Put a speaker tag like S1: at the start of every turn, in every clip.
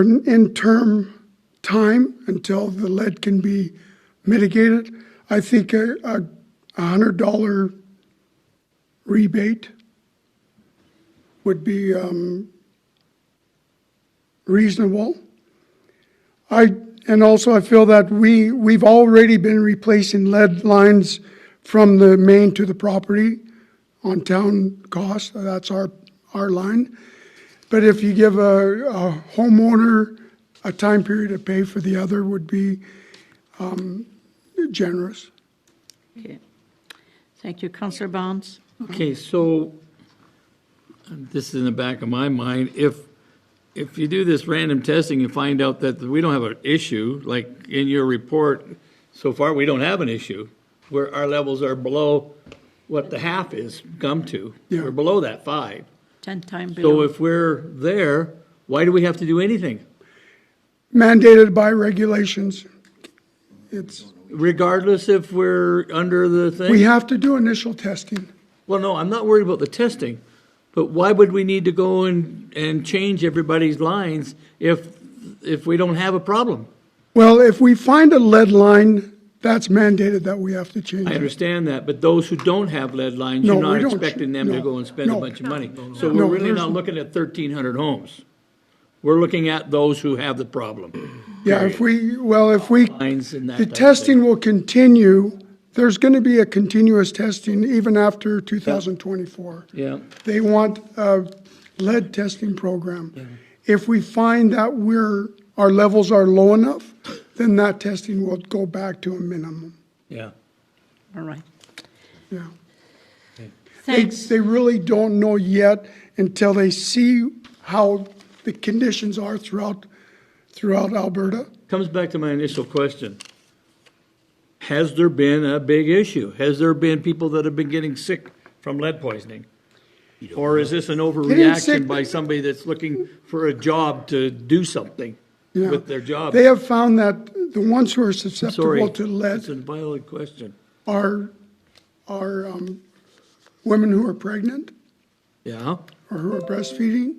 S1: an interim time until the lead can be mitigated. I think a, a a hundred dollar rebate would be, um, reasonable. I, and also I feel that we, we've already been replacing lead lines from the main to the property on town cost, that's our, our line. But if you give a, a homeowner a time period to pay for the other would be, um, generous.
S2: Okay. Thank you, Counselor Barnes.
S3: Okay, so, and this is in the back of my mind, if, if you do this random testing and find out that we don't have an issue, like in your report, so far, we don't have an issue, where our levels are below what the half is come to.
S1: Yeah.
S3: We're below that five.
S2: 10 time
S3: So
S2: below.
S3: if we're there, why do we have to do anything?
S1: Mandated by regulations. It's,
S3: Regardless if we're under the thing?
S1: we have to do initial testing.
S3: Well, no, I'm not worried about the testing, but why would we need to go and, and change everybody's lines if, if we don't have a problem?
S1: Well, if we find a lead line, that's mandated that we have to change
S3: I
S1: it.
S3: understand that, but those who don't have lead lines,
S1: No,
S3: you're
S1: we
S3: not
S1: don't.
S3: expecting them to
S1: No,
S3: go and spend a
S1: no.
S3: bunch of money. So
S1: No,
S3: we're really
S1: there's-
S3: not looking at thirteen hundred homes. We're looking at those who have the problem,
S1: Yeah, if we, well, if we,
S3: lines and that
S1: the
S3: type of thing.
S1: testing will continue. There's going to be a continuous testing even after 2024.
S3: Yeah,
S1: They want a lead testing program. If we find that we're, our levels are low enough, then that testing will go back to a minimum,
S3: yeah.
S2: All right.
S1: yeah. They,
S2: Thanks.
S1: they really don't know yet until they see how the conditions are throughout, throughout Alberta.
S3: Comes back to my initial question. Has there been a big issue? Has there been people that have been getting sick from lead poisoning? Or is this an
S1: sick-
S3: overreaction by somebody that's looking for a job to do something
S1: Yeah.
S3: with their job?
S1: They have found that the ones who are
S3: Sorry,
S1: susceptible to
S3: it's a
S1: lead
S3: valid question.
S1: are, are um, women who are pregnant
S3: Yeah,
S1: or who are breastfeeding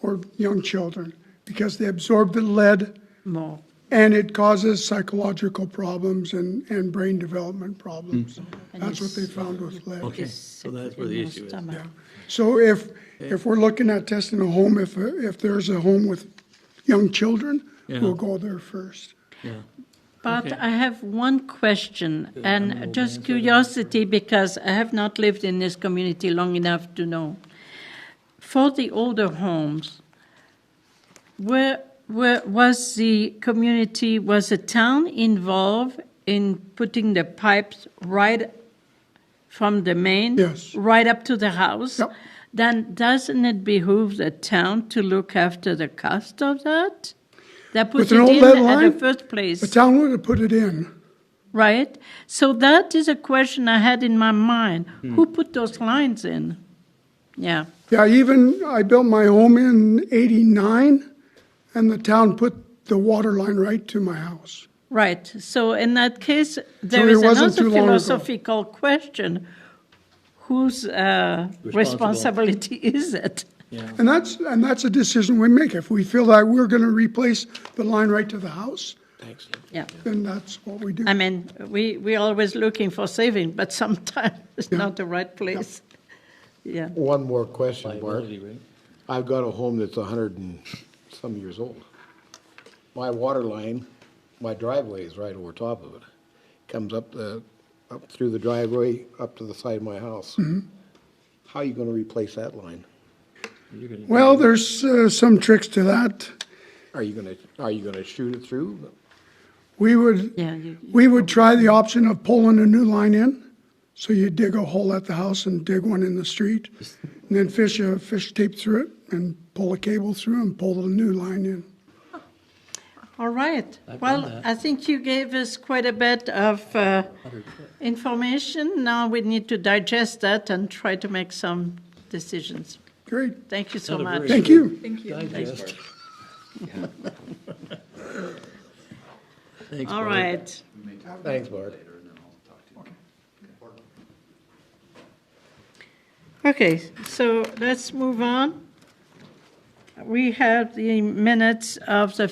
S1: or young children because they absorb the lead
S2: More.
S1: and it causes psychological problems and, and brain development problems. That's what they found with lead.
S3: Mm-hmm. okay,
S2: Is
S3: so
S2: sick
S3: that's where
S2: in
S3: the
S2: your
S3: issue is.
S2: stomach.
S1: So if, if we're looking at testing a home, if, if there's a home with young children,
S3: Yeah.
S1: we'll go there first.
S3: Yeah.
S2: But
S3: Okay.
S2: I have one question, and just curiosity, because I have not lived in this community long enough to know. For the older homes, where, where was the community, was the town involved in putting the pipes right from the main?
S1: Yes.
S2: Right up to the house?
S1: Yep.
S2: Then doesn't it behoove the town to look after the cost of that? They put
S1: With
S2: it
S1: an old
S2: in
S1: lead
S2: at the
S1: line?
S2: first place.
S1: The town would have put it in.
S2: Right? So that is a question I had in my mind.
S1: Hmm.
S2: Who put those lines in? Yeah.
S1: Yeah, even, I built my home in eighty-nine, and the town put the water line right to my house.
S2: Right. So in that case, there
S1: it
S2: is
S1: wasn't
S2: another
S1: too long ago.
S2: philosophical question. Whose uh, responsibility is it?
S1: And that's, and that's a decision we make. If we feel that we're gonna replace the line right to the house,
S2: Yeah.
S1: then that's what we do.
S2: I mean, we, we're always looking for saving, but sometimes it's not the right place. Yeah.
S4: One more question, Bart. I've got a home that's a hundred and some years old. My water line, my driveway is right over top of it. Comes up the, up through the driveway, up to the side of my house. How are you gonna replace that line?
S1: Well, there's, uh, some tricks to that.
S4: Are you gonna, are you gonna shoot it through?
S1: We would,
S2: Yeah. You,
S1: we would try the option of pulling a new line in. So you dig a hole at the house and dig one in the street, and then fish a, fish tape through it, and pull a cable through and pull the new line in.
S2: All right. Well, I think you gave us quite a bit of uh, information. Now we need to digest that and try to make some decisions.
S1: Great,
S2: Thank you so much.
S1: thank you.
S3: Thanks,
S2: All
S3: Bart.
S2: right.
S4: Thanks, Bart.
S2: Okay, so let's move on. we have the minutes of the